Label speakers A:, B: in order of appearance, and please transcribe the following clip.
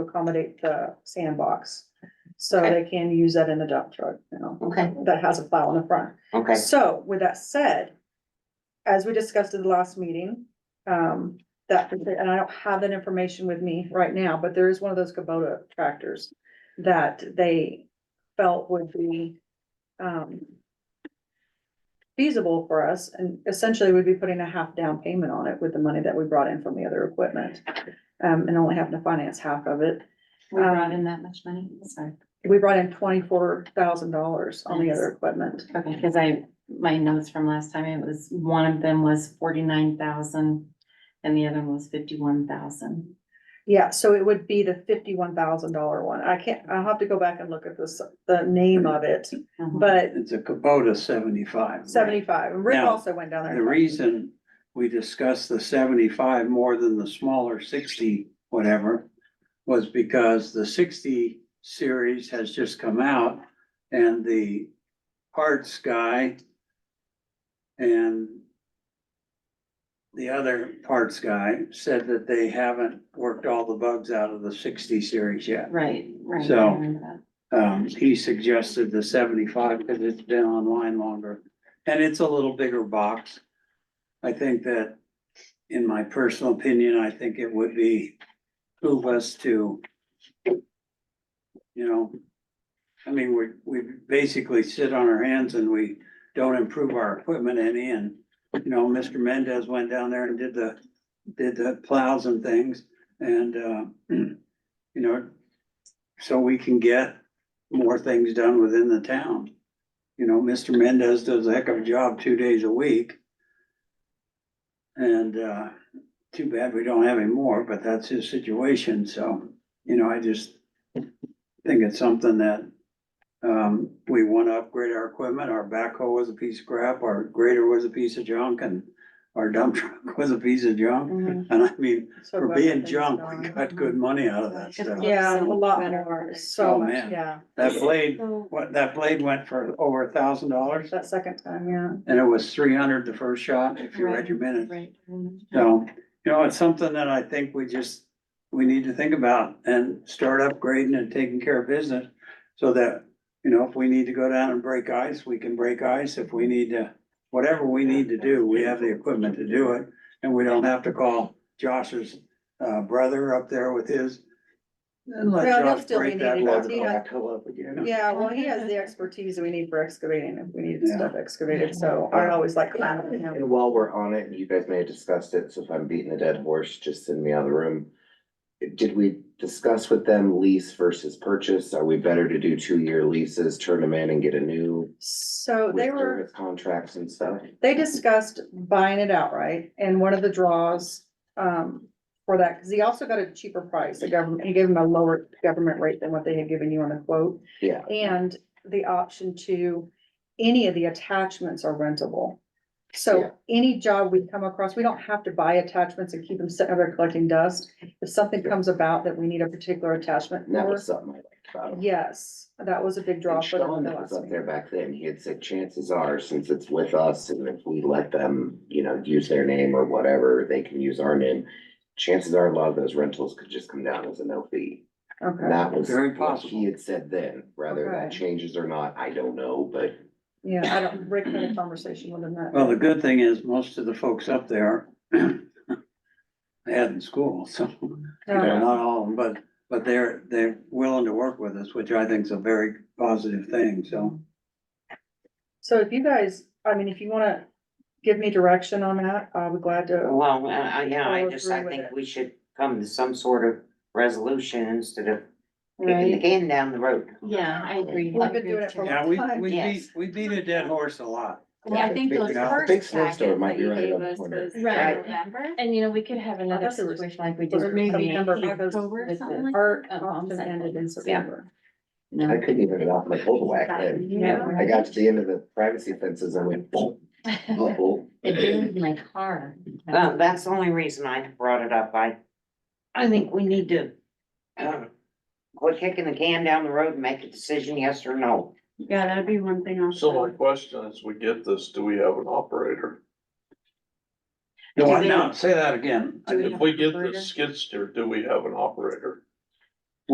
A: accommodate the sandbox. So they can use that in the dump truck now,
B: Okay,
A: that has a plow in the front.
B: okay,
A: So with that said, as we discussed at the last meeting, um, that, and I don't have that information with me right now, but there is one of those Kubota tractors that they felt would be, um, feasible for us and essentially we'd be putting a half down payment on it with the money that we brought in from the other equipment. Um, and only having to finance half of it.
B: we brought in that much money, sorry,
A: We brought in twenty-four thousand dollars on the
B: Nice.
A: other equipment.
B: okay, cause I, my notes from last time, it was, one of them was forty-nine thousand. And the other one was fifty-one thousand,
A: Yeah, so it would be the fifty-one thousand dollar one. I can't, I'll have to go back and look at this, the name of it, but
C: It's a Kubota seventy-five.
A: seventy-five, and Rick
C: Now,
A: also went down there.
C: The reason we discussed the seventy-five more than the smaller sixty, whatever, was because the sixty series has just come out and the parts guy and the other parts guy said that they haven't worked all the bugs out of the sixty series yet.
B: right, right. I
C: So-
B: remember that.
C: Um, he suggested the seventy-five because it's been online longer and it's a little bigger box. I think that, in my personal opinion, I think it would be move us to, you know, I mean, we, we basically sit on our hands and we don't improve our equipment any and, you know, Mr. Mendez went down there and did the, did the plows and things and, uh, you know, so we can get more things done within the town. You know, Mr. Mendez does a heck of a job two days a week. And uh, too bad we don't have him more, but that's his situation, so, you know, I just think it's something that um, we want to upgrade our equipment, our backhoe was a piece of crap, our grader was a piece of junk, and our dump truck was a piece of junk,
B: Mhm.
C: and I mean,
A: So
C: for
A: glad
C: being
A: things
C: junk, we
A: gone.
C: got good money out of that stuff.
A: Yeah, a lot
B: Better.
A: more, so
C: Oh,
A: much,
C: man.
A: yeah,
C: That blade
B: So,
C: What, that blade went for over a thousand dollars
A: that second time, yeah.
C: and it was three hundred the first shot, if you read your minutes.
B: Right.
C: So, you know, it's something that I think we just, we need to think about and start upgrading and taking care of business. So that, you know, if we need to go down and break ice, we can break ice. If we need to, whatever we need to do, we have the equipment to do it. And we don't have to call Josh's uh brother up there with his. And let
A: Well, he'll
C: Josh
A: still be
C: break that
A: needing
C: log
A: it. He
C: off.
A: has- Yeah, well, he has the expertise that we need for excavating, if we need stuff excavated, so I always like.
D: And while we're on it, and you guys may have discussed it, so if I'm beating a dead horse, just send me out of the room. Did we discuss with them lease versus purchase? Are we better to do two-year leases, turn them in and get a new?
A: So they
D: with
A: were.
D: service Contracts and stuff?
A: they discussed buying it outright and one of the draws um for that, because he also got a cheaper price, the government, he gave him a lower government rate than what they had given you on the quote.
D: Yeah.
A: And the option to, any of the attachments are rentable.
D: Yeah.
A: So any job we come across, we don't have to buy attachments and keep them sitting over there collecting dust. If something comes about that we need a particular attachment
D: And that
A: for,
D: was something I liked about them.
A: yes, that was a big draw
D: And
A: for them.
D: Sean
A: at the
D: that was
A: last
D: up
A: meeting.
D: there back then, he had said, chances are, since it's with us, and if we let them, you know, use their name or whatever, they can use our name. Chances are, a lot of those rentals could just come down as a no fee. And
A: Okay,
D: That was
C: Very
D: what
C: possible.
D: he had said then, whether
A: Okay.
D: that changes or not, I don't know, but
A: yeah, I don't, Rick had a conversation with him that.
D: Oh,
C: Well, the good thing is most of the folks up there they had in school, so
A: No.
D: Yeah.
C: not all, of them, but but they're they're willing to work with us, which I think is a very positive thing, so.
A: So if you guys, I mean, if you wanna give me direction on that, I'll be glad to.
E: Well, I, I- yeah,
A: Follow
E: I just, I
A: through with
E: think
A: it.
E: we should come to some sort of resolution instead of kicking the
B: Right,
E: can down the road.
B: yeah, I agree. I
A: We've been
B: agree
A: doing
B: with
A: it for a
B: you.
C: Yeah,
A: long
C: we
A: time.
C: we beat,
E: Yes.
C: we beat a dead horse a lot.
F: Well, I think
D: Big-
F: those
C: now,
D: a big
F: first packets
D: snowstorm might
F: that
D: be
F: you
D: right
F: gave
D: around the
F: us
D: corner.
F: was in
B: Right.
F: November.
B: And you know, we could have another
A: thought there was-
B: situation like we did
A: Or
B: with
A: maybe
B: maybe
A: September, because
B: October or something like.
A: Our
B: that.
A: option ended in September.
D: I couldn't even get off my pole whack then.
B: Yeah.
D: I got to the end of the privacy fences and went boom, boom, boom.
B: It did my car.
E: Uh, that's the only reason I brought it up. I, I think we need to, um, quit kicking the can down the road and make a decision, yes or no.
B: Yeah, that'd be one thing I'll.
G: So my question is, we get this, do we have an operator?
C: No,
E: Do
C: I
E: they-
C: no, say that again.
B: Do we
G: If
B: have
G: we
B: an
G: get
B: Oh, operator?
G: this skid steer, do we have an operator?